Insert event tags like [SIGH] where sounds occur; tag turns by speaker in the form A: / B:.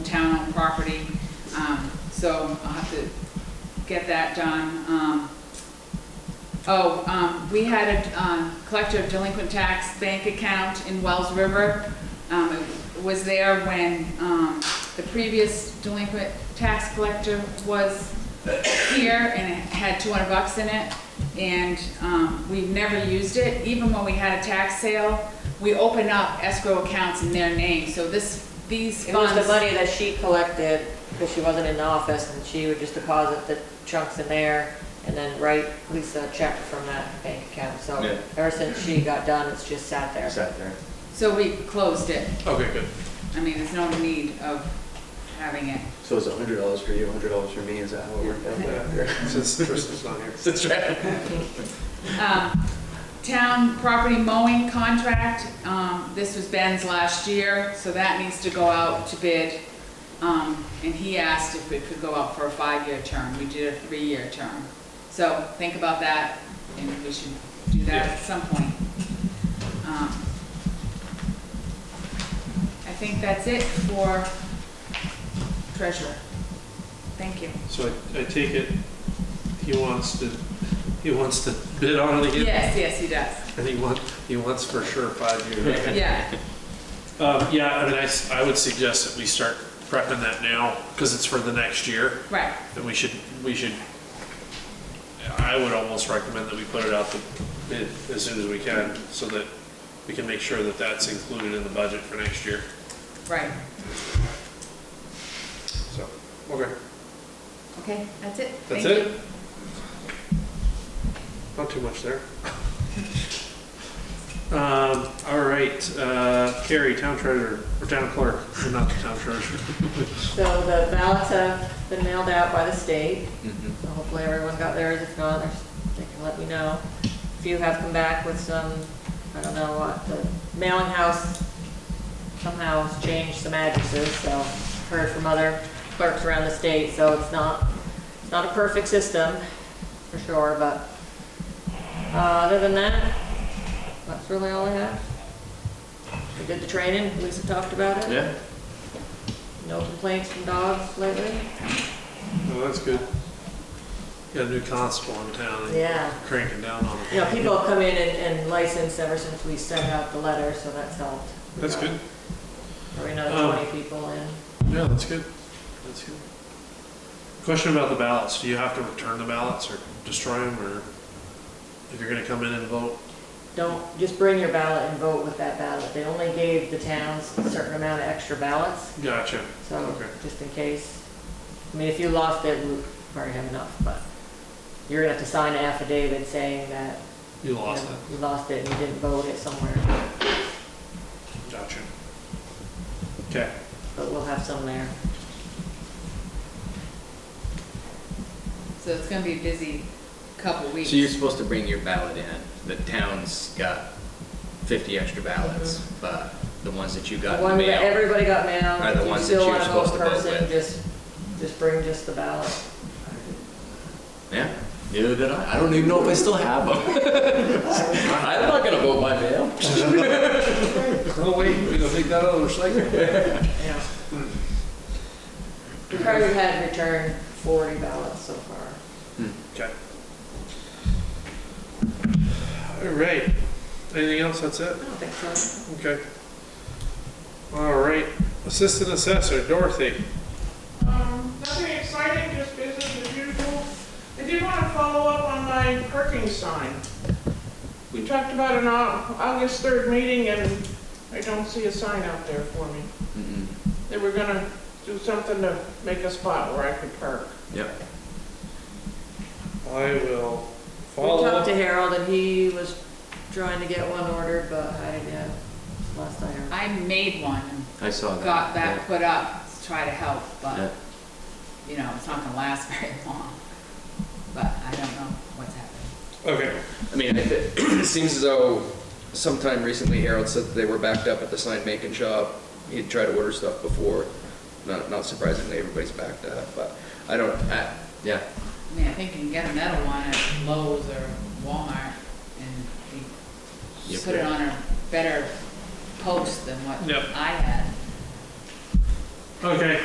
A: town property. Um, So I'll have to get that done. Um, Oh, um, we had a um, collector of delinquent tax bank account in Wells River. Um, it was there when, um, the previous delinquent tax collector was here and it had two hundred bucks in it. And, um, we never used it, even when we had a tax sale, we opened up escrow accounts in their name, so this, these
B: It
A: funds.
B: was the money that she collected, because she wasn't in the office, and she would just deposit the chunks in there, and then write Lisa a check from that bank account, so
C: Yeah.
B: ever since she got done, it's just sat there.
C: Sat there.
A: So we closed it,
D: Okay, good.
A: I mean, there's no need of having it.
C: So it's a hundred dollars for you, a hundred dollars for me, is that how it worked out?
D: Yeah, Since Tristan's not here. That's right.
A: Um, Town property mowing contract, um, this was Ben's last year, so that needs to go out to bid. Um, And he asked if it could go out for a five-year term, we did a three-year term. So think about that, and we should do that at some point. Um, I think that's it for treasurer. Thank you.
D: So I, I take it, he wants to, he wants to bid on it again?
A: Yes, yes, he does,
D: And he wants, he wants for sure five years.
A: yeah.
D: Um, yeah, I mean, I, s- I would suggest that we start prepping that now, because it's for the next year.
A: Right,
D: Then we should, we should, I would almost recommend that we put it out to bid as soon as we can, so that we can make sure that that's included in the budget for next year,
A: right.
D: so. Okay.
A: Okay, that's it.
D: That's
A: Thank
D: it?
A: you.
D: Not too much there. Um, all right, uh, Carrie, town treasurer, or town clerk, not the town treasurer.
B: So the ballots have been mailed out by the state,
E: Mm-hmm.
B: so hopefully everyone got theirs, if not, there's- they can let me know. If you have come back with some, I don't know what, the mailing house somehow has changed some addresses, so I've heard from other clerks around the state, so it's not, it's not a perfect system, for sure, but, uh, other than that, that's really all I have. We did the training, Lisa talked about it.
C: Yeah,
B: No complaints from dogs lately?
D: Oh, that's good. Got a new constable in town. and
B: Yeah.
D: Cranking down on it.
B: You know, people have come in and, and licensed ever since we sent out the letter, so that's helped. We
D: That's
B: got
D: good.
B: Probably another
D: Um,
B: twenty people in.
D: Yeah, that's good. That's good. Question about the ballots. Do you have to return the ballots or destroy them or if you're gonna come in and vote?
B: Don't, just bring your ballot and vote with that ballot. They only gave the towns a certain amount of extra ballots,
D: Gotcha.
B: so
D: Okay.
B: just in case. I mean, if you lost it, we already have enough, but you're gonna have to sign an affidavit saying that.
D: You
B: you
D: lost
B: know,
D: it.
B: You lost it and you didn't vote it somewhere,
D: Gotcha. Okay.
B: but we'll have some there.
A: So it's gonna be a busy couple weeks.
E: So you're supposed to bring your ballot in. The town's got fifty extra ballots,
D: Mm-hmm.
E: but the ones that you
B: The
E: got in the
B: one that
E: mail.
B: everybody got
E: Are
B: mailed,
E: the
B: if you
E: ones that
B: still
E: you're
B: want to vote
E: supposed to vote
B: person,
E: with.
B: just, just bring just the ballot.
E: Yeah, neither did I. I don't even know if I still have them. [LAUGHS] I'm not gonna vote by mail.
D: [LAUGHS] Oh, wait, we're gonna take that out of the recycling.
B: Yeah. We probably had returned forty ballots so far.
D: Okay. All right. Anything else? That's it?
B: I don't think so.
D: Okay. All right. Assistant Assessor, Dorothy.
F: Um, Nothing exciting, just business as usual. I did want to follow up on my parking sign. We talked about an Au- August 3rd meeting, and I don't see a sign out there for me.
E: Mm-mm.
F: They were gonna do something to make a spot where I could park.
E: Yep.
D: I will
B: We
D: follow
B: talked to
D: up.
B: Harold and he was trying to get one ordered, but I didn't have, last I heard.
A: I made one, and
E: I saw that.
A: got that put up to try to help,
E: Yeah.
A: but, you know, it's not gonna last [LAUGHS] very long. But I don't know what's happening.
D: Okay.
C: I mean, it it seems as though sometime recently Harold said that they were backed up at the sign making shop. He'd tried to order stuff before, not, not surprisingly, everybody's backed up, but I don't, I,
E: Yeah,
A: I mean, I think you can get another one at Lowe's or Walmart, and you
E: Yep.
A: put it on a better post than what
D: Yep.
A: I had.
D: Okay.